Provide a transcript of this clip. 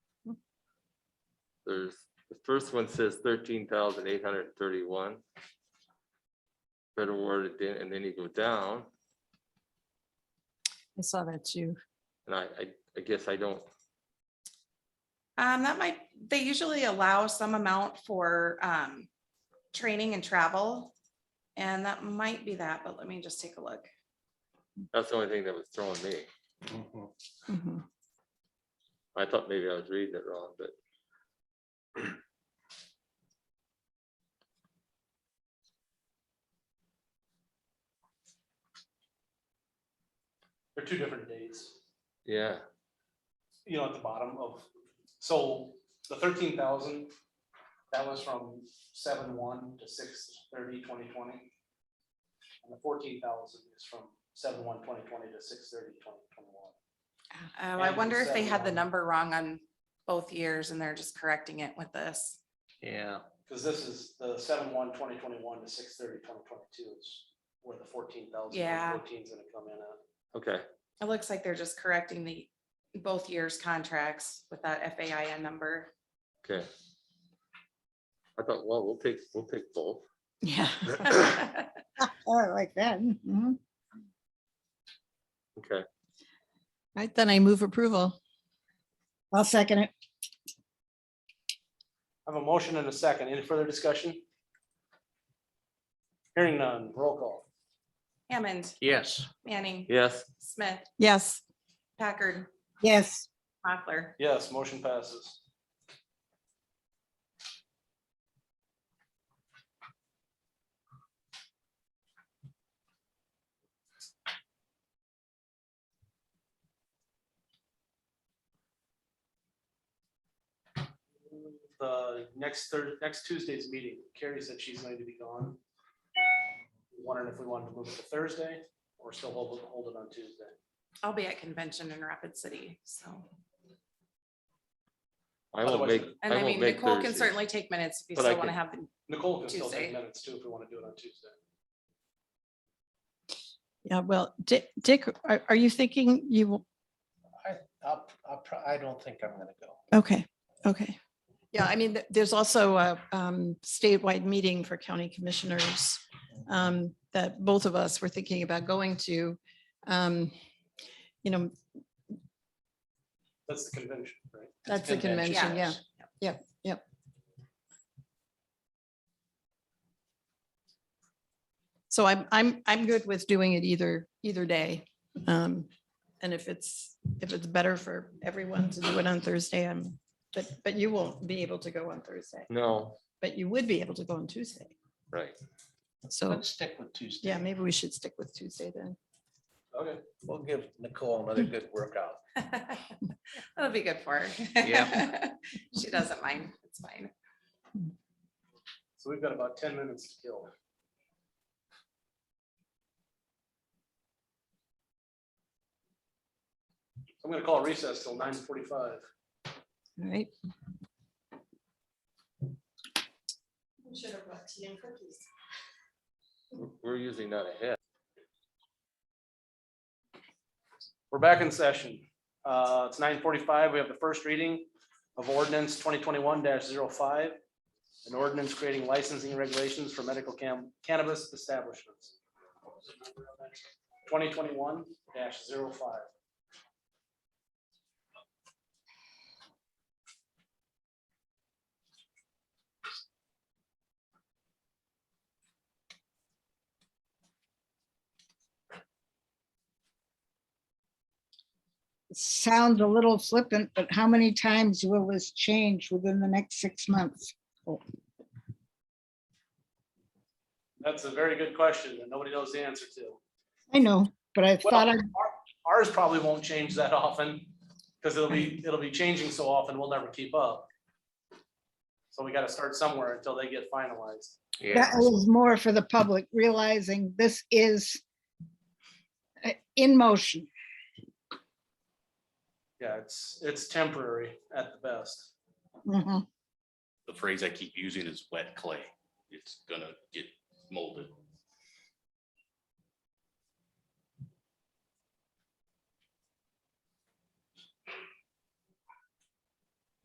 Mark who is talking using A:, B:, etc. A: there's, the first one says thirteen thousand eight hundred and thirty-one. Federal awarded, then- and then you go down,
B: I saw that too.
A: and I, I, I guess I don't,
C: Um, that might, they usually allow some amount for, um, training and travel. And that might be that, but let me just take a look.
A: that's the only thing that was throwing me.
B: Mhm.
A: I thought maybe I was reading it wrong, but
D: They're two different dates,
A: yeah,
D: you know, at the bottom of, so the thirteen thousand, that was from seven one to six thirty twenty twenty. And the fourteen thousand is from seven one twenty twenty to six thirty twenty twenty one.
C: Oh, I
D: And
C: wonder if they
D: seven
C: had the
A: um,
D: one.
C: number wrong on both years and they're just correcting it with this.
E: Yeah,
D: Cause this is the seven one twenty twenty one to six thirty twenty twenty two is where the fourteen thousand.
C: Yeah.
D: gonna come in at.
A: okay,
C: It looks like they're just correcting the, both years' contracts with that FAIN number.
A: okay. I thought, well, we'll take, we'll take both.
B: Yeah.
C: But
F: Oh, I like that. Mhm.
A: Okay,
B: Right, then I move approval.
F: I'll second it.
D: I have a motion and a second. Any further discussion? Hearing none, roll call.
C: Hammond,
E: yes.
C: Manning,
A: yes,
C: Smith,
B: Yes,
C: Packard,
F: Yes,
C: Mochler.
D: Yes, motion passes. The next Thursday, next Tuesday's meeting, Carrie said she's going to be gone. Wondering if we wanted to move it to Thursday or still hold it, hold it on Tuesday.
C: I'll be at convention in Rapid City, so.
A: I won't
D: Otherwise,
A: make,
D: and
C: And I
A: I won't
C: mean,
A: make
C: Nicole can
A: Thursdays.
C: certainly take minutes if you
A: But I
C: still want to
A: can-
C: have the
D: Nicole can still take
C: Tuesday.
D: minutes too if we want to do it on Tuesday.
B: yeah, well, Dick, Dick, are, are you thinking you, will-
E: I'll, I'll, pro- I don't think I'm gonna go.
B: okay, okay. Yeah, I mean, th- there's also a um, statewide meeting for county commissioners um, that both of us were thinking about going to. Um, You know,
D: That's the convention, right?
B: that's the convention, yeah.
E: yes.
B: So I'm, I'm, I'm good with doing it either, either day. Um, And if it's, if it's better for everyone to do it on Thursday, I'm, but, but you won't be able to go on Thursday,
A: No,
B: but you would be able to go on Tuesday.
A: right,
B: So,
E: Let's stick with Tuesday.
B: yeah, maybe we should stick with Tuesday then.
D: Okay,
E: We'll give Nicole another good workout.
C: That'll be good for her.
E: Yeah.
C: She doesn't mind. It's fine.
D: so we've got about ten minutes to kill. I'm gonna call recess till nine forty-five.
B: All right.
A: we're usually not ahead.
D: We're back in session. Uh, It's nine forty-five. We have the first reading of ordinance twenty twenty-one 5 An ordinance creating licensing regulations for medical cam- cannabis establishments. Twenty twenty-one 5
F: sounds a little flippant, but how many times will this change within the next six months?
D: That's a very good question that nobody knows the answer to.
F: I know, but I thought I,
D: Ours probably won't change that often, because it'll be, it'll be changing so often, we'll never keep up. So we gotta start somewhere until they get finalized.
F: that was more for the public, realizing this is uh, in motion.
D: Yeah, it's, it's temporary at the best.
F: Mhm.
G: the phrase I keep using is wet clay. It's gonna get molded.